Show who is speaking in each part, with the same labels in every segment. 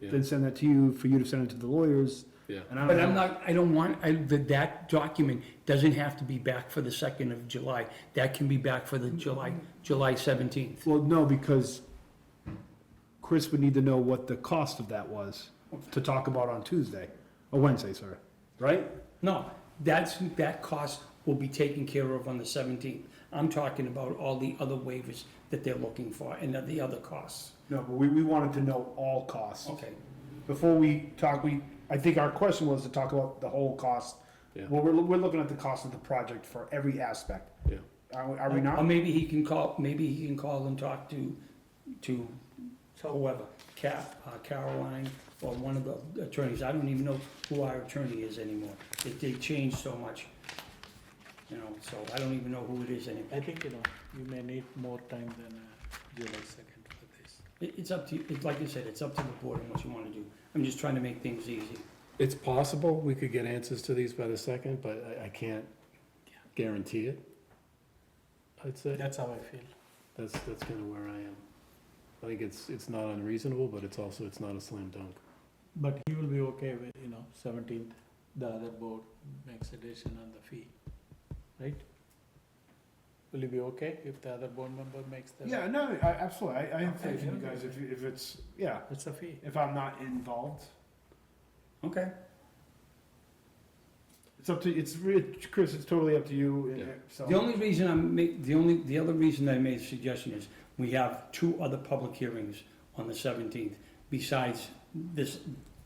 Speaker 1: Yeah.
Speaker 2: then send that to you for you to send it to the lawyers.
Speaker 1: Yeah.
Speaker 2: And I
Speaker 3: But
Speaker 2: don't
Speaker 3: I'm
Speaker 2: know,
Speaker 3: not, I don't want, I, that, that document doesn't have to be back for the second of July. That can be back for the July, July seventeenth.
Speaker 2: well, no, because Chris would need to know what the cost of that was to talk about on Tuesday, or Wednesday, sorry, right?
Speaker 3: No, that's, that cost will be taken care of on the seventeenth. I'm talking about all the other waivers that they're looking for and the other costs.
Speaker 2: No, but we, we wanted to know all costs.
Speaker 3: Okay.
Speaker 2: Before we talk, we, I think our question was to talk about the whole cost.
Speaker 1: Yeah.
Speaker 2: Well, we're, we're looking at the cost of the project for every aspect.
Speaker 1: Yeah.
Speaker 2: Are, we- are we not?
Speaker 3: Or maybe he can call, maybe he can call and talk to, to whoever, Cap, uh, Caroline, or one of the attorneys, I don't even know who our attorney is anymore. They, they changed so much, you know, so I don't even know who it is anymore.
Speaker 4: I think, you know, you may need more time than uh, July second for this.
Speaker 3: It, it's up to, you. it's like I said, it's up to the board and what you wanna do. I'm just trying to make things easy.
Speaker 1: It's possible we could get answers to these by the second, but I, I can't guarantee it. I'd say,
Speaker 4: That's how I feel.
Speaker 1: that's, that's kinda where I am. I think it's, it's not unreasonable, but it's also, it's not a slam dunk.
Speaker 4: But he will be okay with, you know, seventeenth, the other board makes a decision on the fee, right? Will you be okay if the other board member makes the?
Speaker 2: Yeah, no, I, absolutely. I, I have faith in you
Speaker 4: Okay.
Speaker 2: guys if, you- if it's, yeah,
Speaker 4: What's the fee?
Speaker 2: if I'm not involved.
Speaker 3: Okay.
Speaker 2: It's up to, it's, re- Chris, it's totally up to you. and-
Speaker 1: Yeah.
Speaker 2: So,
Speaker 3: The only reason I'm make, the only, the other reason I made a suggestion is, we have two other public hearings on the seventeenth, besides this,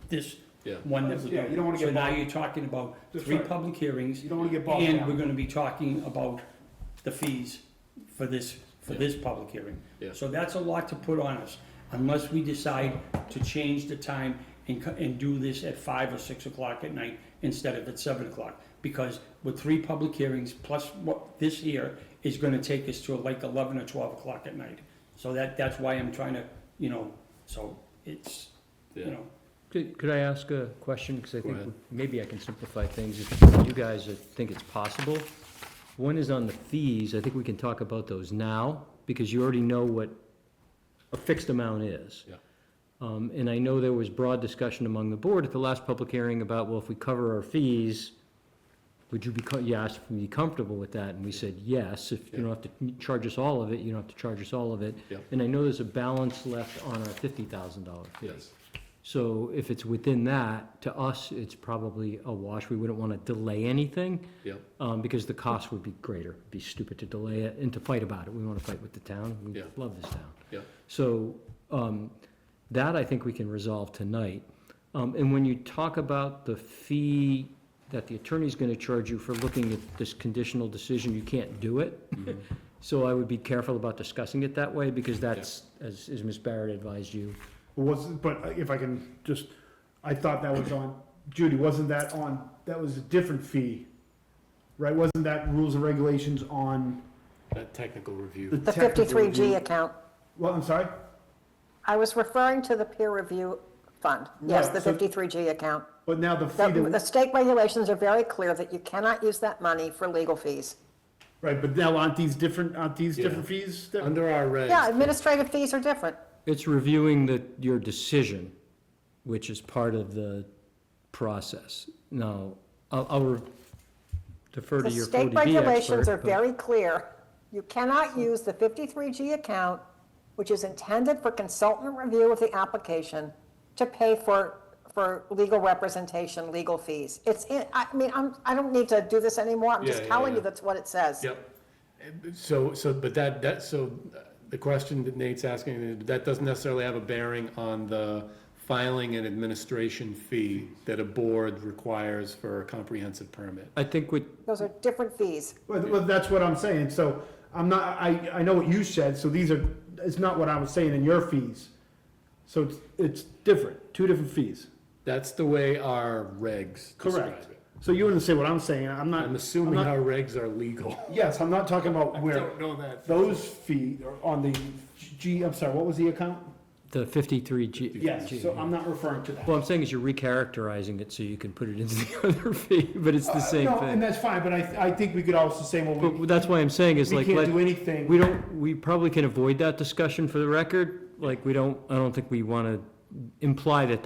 Speaker 3: this
Speaker 1: Yeah.
Speaker 3: one that we're
Speaker 2: Yeah, you don't wanna
Speaker 3: doing.
Speaker 2: get
Speaker 3: So now
Speaker 2: bogged-
Speaker 3: you're talking about
Speaker 2: That's
Speaker 3: three
Speaker 2: right.
Speaker 3: public hearings,
Speaker 2: you don't want to get bogged
Speaker 3: and we're
Speaker 2: down.
Speaker 3: gonna be talking about the fees for this, for
Speaker 1: Yeah.
Speaker 3: this public hearing.
Speaker 1: Yeah.
Speaker 3: So that's a lot to put on us, unless we decide to change the time and, co- and do this at five or six o'clock at night instead of at seven o'clock. Because with three public hearings, plus what this here is gonna take us to like eleven or twelve o'clock at night. So that, that's why I'm trying to, you know, so it's, you
Speaker 1: Yeah,
Speaker 3: know,
Speaker 5: Could could I ask a question? Because I
Speaker 1: Go ahead.
Speaker 5: think maybe I can simplify things if you guys uh, think it's possible. One is on the fees. I think we can talk about those now because you already know what a fixed amount is.
Speaker 1: Yeah.
Speaker 5: Um, And I know there was broad discussion among the board at the last public hearing about, well, if we cover our fees, would you be, co- you asked if we'd be comfortable with that? And we said, yes, if you don't have to charge us all of it, you don't have to charge us all of it.
Speaker 1: Yeah.
Speaker 5: And I know there's a balance left on our $50,000 fee.
Speaker 1: yes,
Speaker 5: So if it's within that, to us, it's probably a wash. We wouldn't want to delay anything
Speaker 1: yeah,
Speaker 5: um, because the cost would be greater. It'd be stupid to delay it and to fight about it. We want to fight with the town. We
Speaker 1: Yeah.
Speaker 5: love this town.
Speaker 1: Yeah.
Speaker 5: So um, that I think we can resolve tonight. Um, And when you talk about the fee that the attorney's going to charge you for looking at this conditional decision, you can't do it.
Speaker 1: Mm-hmm.
Speaker 5: So I would be careful about discussing it that way because that's, as as Ms. Barrett advised you,
Speaker 2: But Was, but if I can just, I thought that was on, Judy, wasn't that on, that was a different fee? Right? Wasn't that rules and regulations on
Speaker 1: that technical
Speaker 2: the
Speaker 1: review,
Speaker 6: The
Speaker 2: technical
Speaker 6: fifty-three G
Speaker 2: review?
Speaker 6: account.
Speaker 2: Well, I'm sorry?
Speaker 6: I was referring to the peer review fund. Yes,
Speaker 2: Right,
Speaker 6: the
Speaker 2: so-
Speaker 6: fifty-three G account.
Speaker 2: But now the
Speaker 6: The
Speaker 2: fee,
Speaker 6: the
Speaker 2: that-
Speaker 6: state regulations are very clear that you cannot use that money for legal fees.
Speaker 2: right, but now aren't these different, aren't these
Speaker 1: Yeah.
Speaker 2: different fees? that-
Speaker 1: under our
Speaker 6: Yeah,
Speaker 1: regs.
Speaker 6: administrative fees are different.
Speaker 5: It's reviewing the, your decision, which is part of the process. Now, I'll, I'll re- defer to
Speaker 6: The
Speaker 5: your
Speaker 6: state
Speaker 5: 40B expert.
Speaker 6: regulations are
Speaker 5: but-
Speaker 6: very clear. You cannot use the fifty-three G account, which is intended for consultant review of the application, to pay for, for legal representation, legal fees. It's, in- I mean, I'm, I don't need to do this anymore. I'm
Speaker 1: Yeah,
Speaker 6: just
Speaker 1: yeah,
Speaker 6: telling you
Speaker 1: yeah.
Speaker 6: that's what it says.
Speaker 1: Yep. So, so, but that, that, so uh, the question that Nate's asking, that doesn't necessarily have a bearing on the filing and administration fee that a board requires for a comprehensive permit.
Speaker 5: I think what,
Speaker 6: Those are different fees.
Speaker 2: Well, th- well, that's what I'm saying, so I'm not, I, I know what you said, so these are, it's not what I was saying in your fees. So it's, it's different, two different fees.
Speaker 1: That's the way our regs describe
Speaker 2: Correct.
Speaker 1: it.
Speaker 2: So you understand what I'm saying, I'm not.
Speaker 1: I'm assuming
Speaker 2: not-
Speaker 1: our regs are legal.
Speaker 2: Yes, I'm not talking about where,
Speaker 1: know that.
Speaker 2: those fees are on the G, I'm sorry, what was the account?
Speaker 5: the 53G.
Speaker 2: Yes,
Speaker 5: G-
Speaker 2: so I'm not referring to that.
Speaker 5: Well, I'm saying is you're recharacterizing it so you can put it into the other fee, but it's the same
Speaker 2: Uh, No, and
Speaker 5: thing.
Speaker 2: that's fine, but I, I think we could also say, well, we,
Speaker 5: But that's why I'm saying is
Speaker 2: we
Speaker 5: like,
Speaker 2: can't
Speaker 5: let-
Speaker 2: do anything.
Speaker 5: we don't, we probably can avoid that discussion for the record. Like, we don't, I don't think we want to imply that